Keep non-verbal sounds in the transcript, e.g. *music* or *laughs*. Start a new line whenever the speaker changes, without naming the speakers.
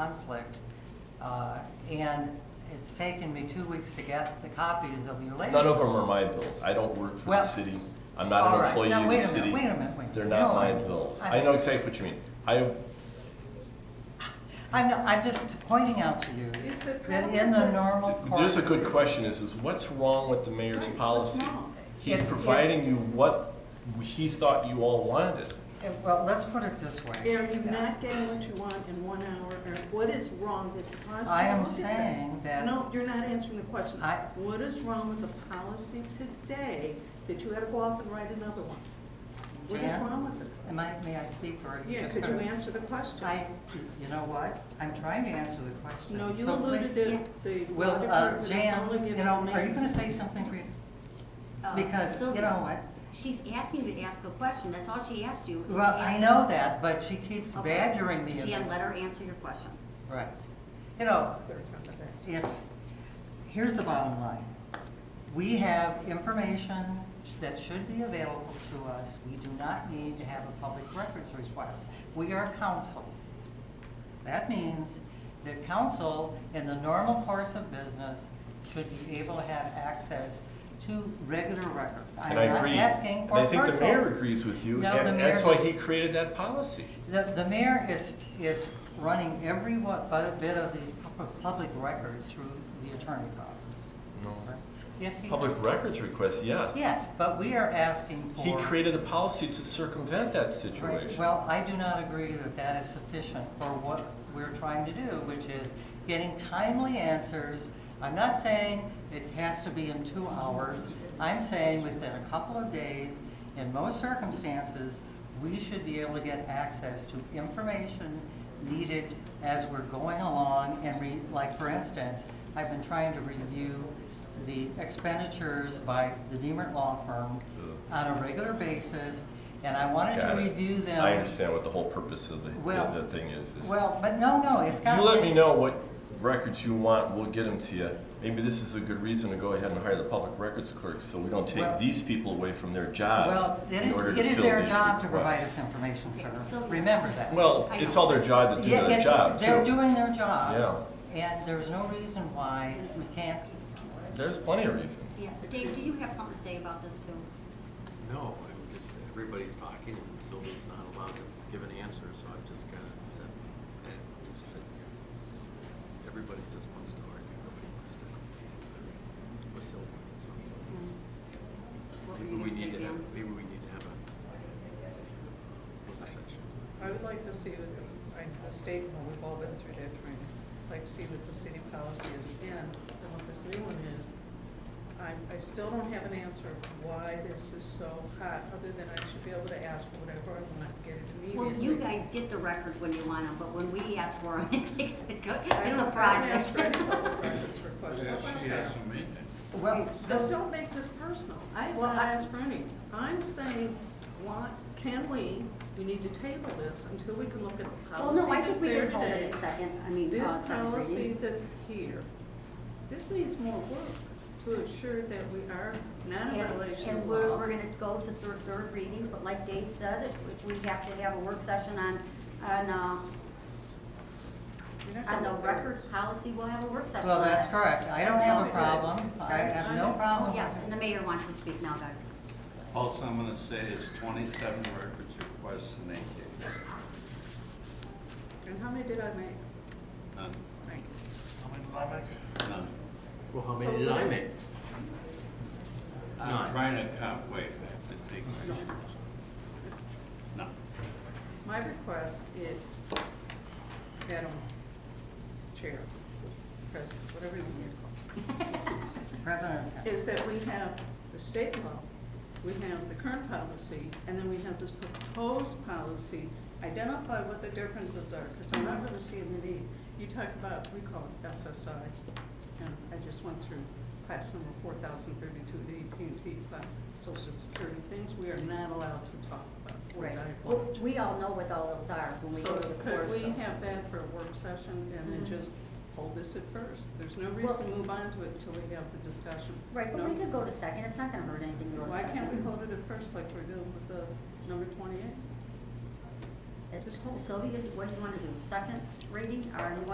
conflict. Uh, And it's taken me two weeks to get the copies of your latest.
None of them are my bills. I don't work for the
Well,
city. I'm not
all
an
right.
employee
Now,
of the
wait a minute,
city.
wait a minute, wait a
They're
minute.
not
No,
my
I-
bills.
I-
I know exactly what you mean. I,
I'm, I'm just pointing out to you
Is it
that in the
probably-
normal course.
there's a good question is, is what's wrong with the mayor's
Right, what's
policy?
wrong?
He's
It- it-
providing you what he thought you all wanted.
Uh, Well, let's put it this way.
Are you not getting what you want in one hour, or what is wrong that caused you?
I am
to do this?
saying that-
No, you're not answering the question.
I-
What is wrong with the policy today that you had to go off and write another one? What is
Jan?
wrong with it?
Am I, may I speak or? are you
Yeah,
just
could you
gonna-
answer the question?
I, you know what? I'm trying to answer the question.
No, you
so
alluded
please-
to the law
Well, uh,
department, it's
Jan,
only
you
given
know, are you gonna
names.
say something, Rita?
Uh,
Because, you
Sylvia,
know what?
She's asking you to ask a question, that's all she asked you. is to
Well, I
ask-
know that, but she keeps
Okay.
badgering me.
Jan,
about-
let her answer your question.
Right. You know, it's, here's the bottom line. We have information that should be available to us. We do not need to have a public records request. We are council. That means that council, in the normal course of business, should be able to have access to regular records. I'm
And I
not
agree.
asking for
And I think the
personal-
mayor agrees with you,
No, the
and that's
mayor
why he
does-
created that policy.
The, the mayor is, is running every what, bu- bit of these pu- public records through the attorney's office.
No.
Yes, he
Public records request, yes.
Yes, but we are asking for.
He created the policy to circumvent that
Right,
situation.
Well, I do not agree that that is sufficient for what we're trying to do, which is getting timely answers. I'm not saying it has to be in two hours. I'm saying within a couple of days, in most circumstances, we should be able to get access to information needed as we're going along and re, like, for instance, I've been trying to review the expenditures by the Deemer Law Firm on a regular basis, and I wanted to
Got it.
review them.
I understand what the whole purpose of the,
Well-
the the thing is. is-
Well, but no, no, it's got.
You let me know what records you want, we'll get them to you. Maybe this is a good reason to go ahead and hire the public records clerk, so we don't
Well-
take these people away from their
Well,
jobs
it
uh, in
is,
order to
it is
fill
their
these
job to provide us
requests.
information, sir.
So-
Remember that.
Well,
I
it's
know.
all their job to do
Yeah,
their
it's-
job, too.
They're doing their job.
Yeah.
And there's no reason why we can't,
There's plenty of reasons.
Yeah, Dave, do you have something to say about this too?
No, I'm just, everybody's talking and Sylvia's not allowed to give an answer, so I've just kind of said, eh, just sit here. Everybody just wants to argue, nobody wants to, argue with Sylvia, so.
Mm, What were
Maybe
you
we
gonna say,
need to have,
Jan?
maybe we need to have a conversation.
I would like to see, I a statement, we've all been through that training, like to see what the city policy is again, and what this new one is. I, I still don't have an answer of why this is so hot, other than I should be able to ask for whatever I want, get it
Well,
immediately.
you guys get the records when you want them, but when we ask for them, *laughs* it takes a good,
I
it's a
don't- I don't ask for any
*laughs* project.
public records request.
well,
Just
this,
don't make this personal. I have
Well,
not
I-
asked for any. I'm saying, why, can we, we need to table this until we can look at the
Well,
policy
no, I
that's
think we
there
did hold it
today.
at second, I mean, uh,
This
second
policy
reading.
that's here, this needs more work to assure that we are not in
And
violation
and
of
we're,
law.
we're gonna go to third, third readings, but like Dave said, if, if we have to have a work session on, on, uh,
You're not
On
gonna
the
look at it.
records policy, we'll have a work session.
well,
on
that's
it.
correct. I don't have a problem. I have no problem.
Oh, yes, and the mayor wants to speak now, guys.
Also, I'm gonna say is twenty-seven records requests in eight days.
And how many did I make?
None,
Thank you.
none.
Well, how
So
many did I
what-
make?
I'm
None.
trying to comp wave that, to take my shoes. No.
My request is, Madam Chair, President, whatever you want me to call.
President,
is that we have the state law, we have the current policy, and then we have this proposed policy. Identify what the differences are, because I'm not really seeing the need. You talked about, we call it SSI, and I just went through class number four thousand thirty-two, the AT&T, about social security things we are not allowed to talk about. or
Right.
divulge.
Well, we all know what all those are when we go
So
to the
could
court.
we have that for a work session and then
Mhm.
just hold this at first? There's no
Well-
reason to move on to it until we have the discussion.
Right, but
No?
we could go to second, it's not gonna hurt anything to go to
Why
second.
can't we hold it at first like we're doing with the number twenty-eight?
It's-
just hold it?
Sylvia, what do you wanna do, second reading, or you